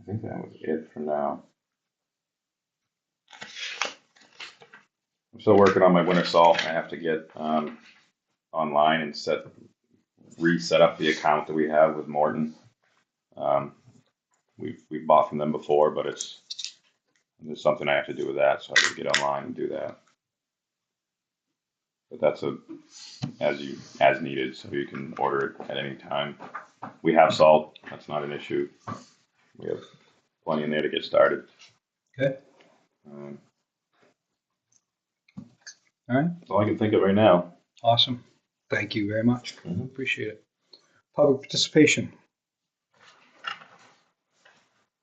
I think that was it for now. I'm still working on my winter salt. I have to get um, online and set reset up the account that we have with Morton. Um, we've we've bought from them before, but it's there's something I have to do with that, so I got to get online and do that. But that's a as you as needed, so you can order it at any time. We have salt. That's not an issue. We have plenty in there to get started. Okay. Um, All right. that's all I can think of right now. Awesome. Thank you very much. Mhm. Appreciate it. Public participation.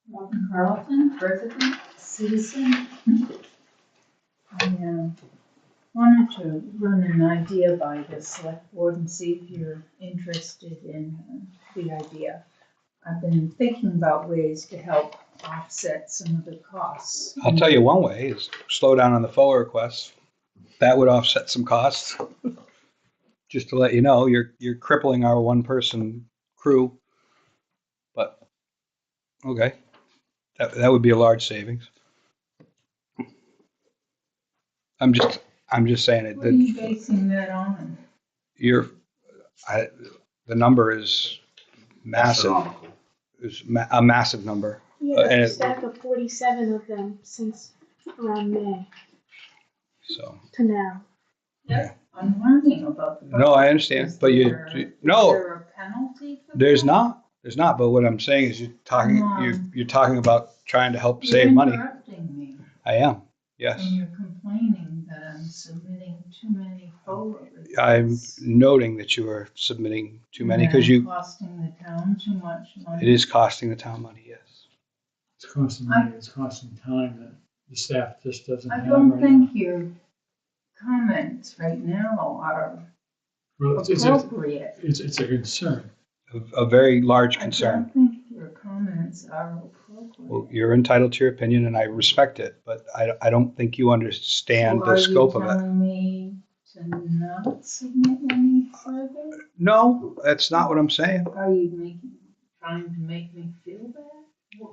Walton Carlton, resident, citizen. I uh, wanted to run an idea by the select board and see if you're interested in uh, the idea. I've been thinking about ways to help offset some of the costs. I'll tell you one way is slow down on the FOA requests. That would offset some costs. Just to let you know, you're, you're crippling our one-person crew. But, okay, that, that would be a large savings. I'm just, I'm just saying it, What are you that basing that on? you're, I, the number is massive, Astronomical. is ma- a massive number. Yeah, Uh, there's and a it- stack of 47 of them since around May So, to now. I'm learning about the. no, I understand, but you, you- Is no, there a penalty for that? there's not, there's not, but what I'm saying is you're talking, Come you're, on. you're talking about trying to help save money. You're interrupting me. I am, yes. And you're complaining that I'm submitting too many forward requests. I'm noting that you are submitting too many because And I'm you, Costing the town too much it money. is costing the town money, yes. It's costing money, it's costing time that the staff just doesn't I have don't right now. think your comments right now are Well, it's, it's, a- appropriate. it's, it's a concern. A- A very large I concern. don't think your comments are Well, appropriate. you're entitled to your opinion and I respect it, but I, I don't think you understand the scope of Are you it. telling me to not submit any further? No, that's not what I'm saying. Are you making, trying to make me feel bad?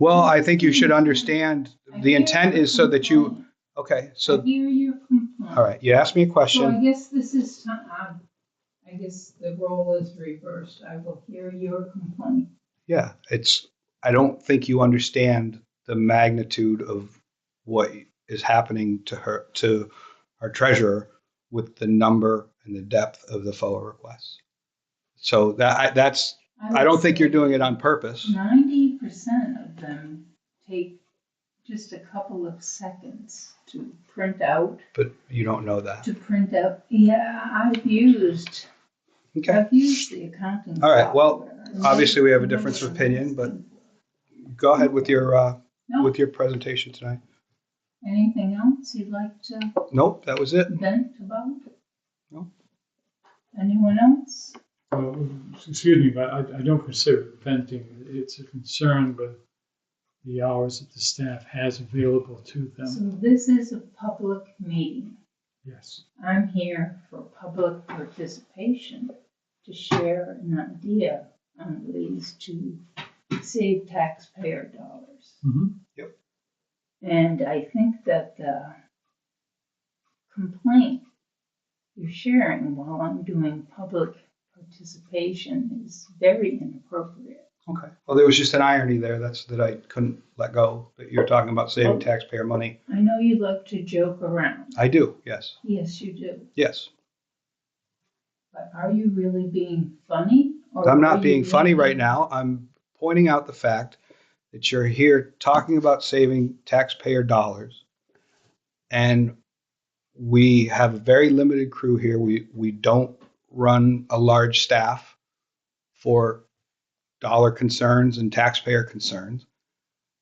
Well, I think you should understand, I the hear intent your is so that you, complaint. okay, I so, hear your complaint. all right, you asked me a So I question. guess this is, ti- um, I guess the role is reversed. I will hear your complaint. Yeah, it's, I don't think you understand the magnitude of what is happening to her, to our treasurer with the number and the depth of the FOA requests. So that, I- that's, I don't think you're doing it on purpose. Ninety percent of them take just a couple of seconds to print out, but you don't know that. to print out. Yeah, I've used, Okay. I've used the accounting. All right, well, software. obviously we have a difference of opinion, but- Go ahead with your, uh, No, with your presentation tonight. anything else you'd like to Nope, that was it. vent about? No. Anyone else? Well, excuse me, but I, I don't consider it venting. It's a concern with the hours that the staff has available to them. So this is a public meeting. Yes. I'm here for public participation to share an idea on ways to save taxpayer dollars. Mhm. And I think that the complaint you're sharing while I'm doing public participation is very inappropriate. Okay. Well, there was just an irony there. That's that I couldn't let go. That you're talking about saving taxpayer money. I know you like to joke around. I do. Yes. Yes, you do. Yes. But are you really being funny? or I'm are not you being funny really- right now. I'm pointing out the fact that you're here talking about saving taxpayer dollars, and we have a very limited crew here. We we don't run a large staff for dollar concerns and taxpayer concerns.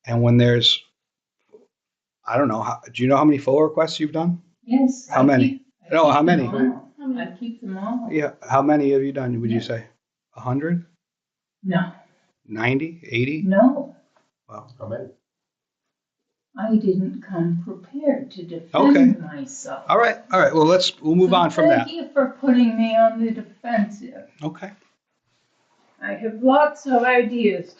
And when there's, I don't know, how, do you know how many full requests you've done? Yes. How I many? keep- I No, keep how many? them all. How many? I keep them all. Yeah, how many have you done? Would you Yeah. say 100, No, 90, 80? no, Wow. I didn't come prepared to Okay. defend myself. All right, all right. Well, let's we'll move So on from that. Thank you for putting me on the defensive. Okay. I have lots of ideas